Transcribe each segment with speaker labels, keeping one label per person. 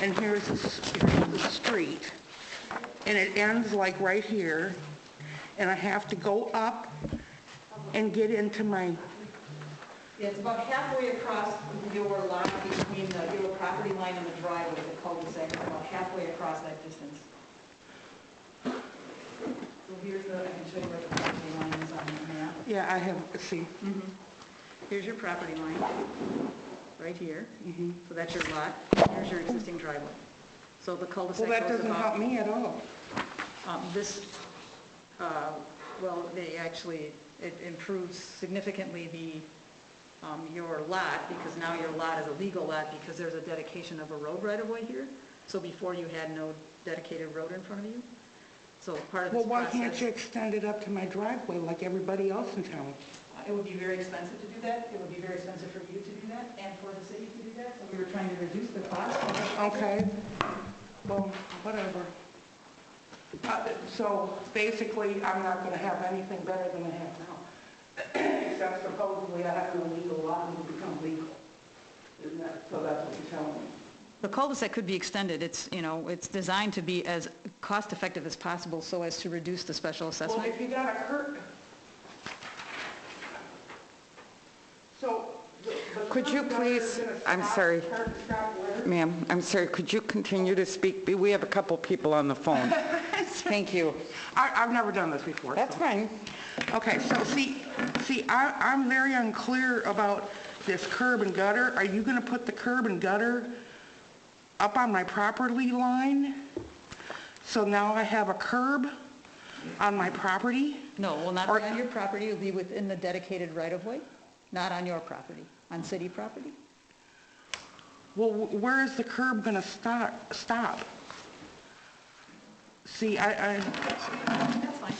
Speaker 1: and here's the, s- here's the street, and it ends like right here, and I have to go up and get into my,
Speaker 2: Yeah, it's about halfway across your line between the, your property line and the driveway, the cul-de-sac, it's about halfway across that distance. So here's the, I can show you where the property line is on the map.
Speaker 1: yeah, I have, see,
Speaker 2: Here's your property line, right here.
Speaker 1: Mm-hmm.
Speaker 2: So that's your lot, here's your existing driveway. So the
Speaker 1: well,
Speaker 2: cul-de-sac
Speaker 1: that
Speaker 2: goes
Speaker 1: doesn't help
Speaker 2: about,
Speaker 1: me at all.
Speaker 2: um, this, uh, well, they actually, it improves significantly the, um, your lot, because now your lot is a legal lot, because there's a dedication of a road right-of-way here. So before you had no dedicated road in front of you. So part of
Speaker 1: Well,
Speaker 2: this
Speaker 1: why
Speaker 2: process.
Speaker 1: can't you extend it up to my driveway like everybody else in town?
Speaker 2: Uh, It would be very expensive to do that. It would be very expensive for you to do that and for the city to do that. So we were trying to reduce the cost.
Speaker 1: Okay, well, whatever. Uh, So basically, I'm not gonna have anything better than I have now. Except supposedly I have to legal lot and become legal. Isn't that, so that's what you're telling me?
Speaker 2: The cul-de-sac could be extended. It's, you know, it's designed to be as cost-effective as possible so as to reduce the special
Speaker 1: Well,
Speaker 2: assessment.
Speaker 1: if you got a cur... So... the- the
Speaker 3: Could you
Speaker 1: curb gutter is
Speaker 3: please-
Speaker 1: gonna
Speaker 3: I'm
Speaker 1: stop-
Speaker 3: sorry.
Speaker 1: curb stop where?
Speaker 3: Ma'am, I'm sorry, could you continue to speak? Be- We have a couple people on the phone. Thank you.
Speaker 1: I, I've never done this before.
Speaker 3: That's
Speaker 1: so-
Speaker 3: fine.
Speaker 1: Okay, so see, see, I, I'm very unclear about this curb and gutter. Are you gonna put the curb and gutter up on my property line? So now I have a curb on my property?
Speaker 2: No, it will not
Speaker 1: Or-
Speaker 2: be on your property. It'll be within the dedicated right-of-way, not on your property, on city property.
Speaker 1: Well, wh- where is the curb gonna stop, stop? See, I, I,
Speaker 2: That's fine.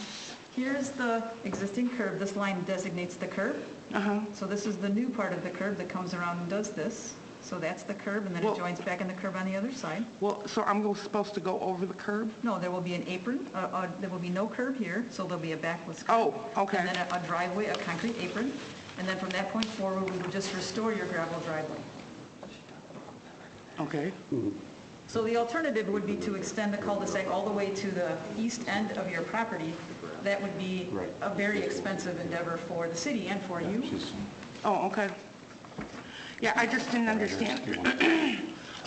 Speaker 2: Here's the existing curb. This line designates the curb.
Speaker 1: uh-huh,
Speaker 2: So this is the new part of the curb that comes around and does this. So that's the curb, and then
Speaker 1: Well-
Speaker 2: it joins back in the curb on the other side.
Speaker 1: well, so I'm go- supposed to go over the curb?
Speaker 2: No, there will be an apron, uh, uh, there will be no curb here, so there'll be a backless curb.
Speaker 1: Oh, okay.
Speaker 2: And then a- a driveway, a concrete apron, and then from that point forward, we will just restore your gravel driveway.
Speaker 1: Okay.
Speaker 2: So the alternative would be to extend the cul-de-sac all the way to the east end of your property. That would be a very expensive endeavor for the city and for you.
Speaker 1: Oh, okay. Yeah, I just didn't understand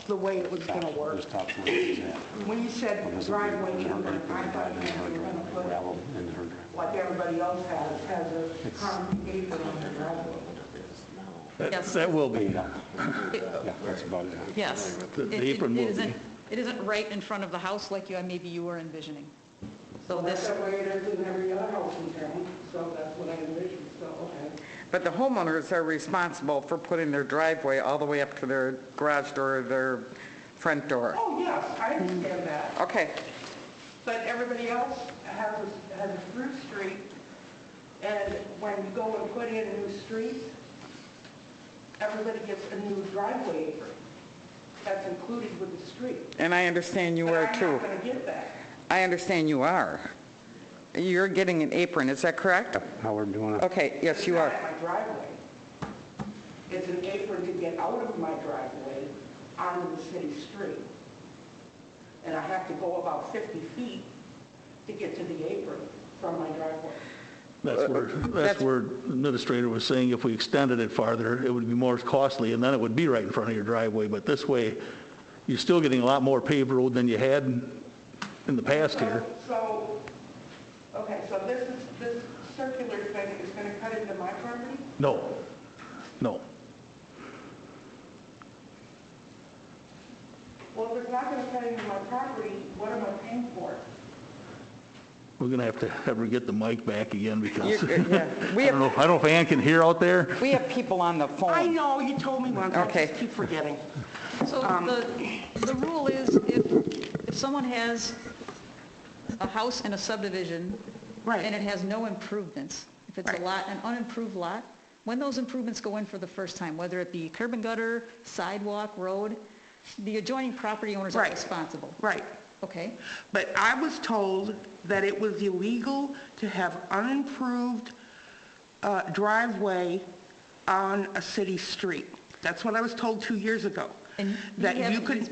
Speaker 1: the way it was gonna work.
Speaker 4: Just top floor is that.
Speaker 1: When you said
Speaker 4: Because we-
Speaker 1: driveway
Speaker 4: we don't
Speaker 1: number,
Speaker 4: put
Speaker 1: I
Speaker 4: the
Speaker 1: thought
Speaker 4: drive
Speaker 1: you
Speaker 4: in her
Speaker 1: meant you were gonna
Speaker 4: driveway,
Speaker 1: put,
Speaker 4: Gravel in um, her driveway.
Speaker 1: like everybody else has, has a concrete apron on their driveway.
Speaker 2: Yes.
Speaker 5: That will be.
Speaker 4: Yeah, that's about it.
Speaker 2: Yes.
Speaker 5: The-
Speaker 2: It-
Speaker 5: the
Speaker 2: it-
Speaker 5: apron
Speaker 2: it
Speaker 5: will be-
Speaker 2: isn't- It isn't right in front of the house like you, maybe you were envisioning. So
Speaker 1: That's
Speaker 2: this,
Speaker 1: the way it is in every other house in town, so that's what I envisioned, so, okay.
Speaker 3: But the homeowners are responsible for putting their driveway all the way up to their garage door or their front door.
Speaker 1: Oh, yes, I understand that.
Speaker 3: Okay,
Speaker 1: But everybody else has, a- has a through street, and when you go and put in new streets, everybody gets a new driveway apron that's included with the street.
Speaker 3: and I understand you are
Speaker 1: But I'm
Speaker 3: too.
Speaker 1: not gonna get that.
Speaker 3: I understand you are. You're getting an apron, is that correct?
Speaker 4: How we're doing it.
Speaker 3: Okay, yes, you
Speaker 1: It's
Speaker 3: are.
Speaker 1: not at my driveway. It's an apron to get out of my driveway onto the city street. And I have to go about 50 feet to get to the apron from my driveway.
Speaker 5: That's where, that's
Speaker 3: that's-
Speaker 5: where the administrator was saying if we extended it farther, it would be more costly, and then it would be right in front of your driveway. But this way, you're still getting a lot more paved road than you had in the past here.
Speaker 1: So, okay, so this is, this circular thing is going to cut into my property?
Speaker 5: No, no.
Speaker 1: Well, if it's not going to cut into my property, what am I paying for?
Speaker 5: We're going to have to have her get the mic back again because,
Speaker 3: You-
Speaker 5: I
Speaker 3: yeah. We
Speaker 5: don't know,
Speaker 3: have,
Speaker 5: I don't know if Ann can hear out there.
Speaker 3: we have people on the phone.
Speaker 1: I know, you told me once, I
Speaker 3: Oh. Okay.
Speaker 1: just keep forgetting.
Speaker 2: so
Speaker 1: Um,
Speaker 2: the, the rule is if, if someone has a house in a subdivision.
Speaker 1: Right.
Speaker 2: And it has no improvements, if it's a
Speaker 1: Right.
Speaker 2: lot, an unimproved lot, when those improvements go in for the first time, whether it be curb and gutter, sidewalk, road, the adjoining property owners are
Speaker 1: Right.
Speaker 2: responsible.
Speaker 1: Right.
Speaker 2: Okay?
Speaker 1: But I was told that it was illegal to have unimproved uh, driveway on a city street. That's what I was told two years ago.
Speaker 2: And you
Speaker 1: That you
Speaker 2: haven't
Speaker 1: could,
Speaker 2: used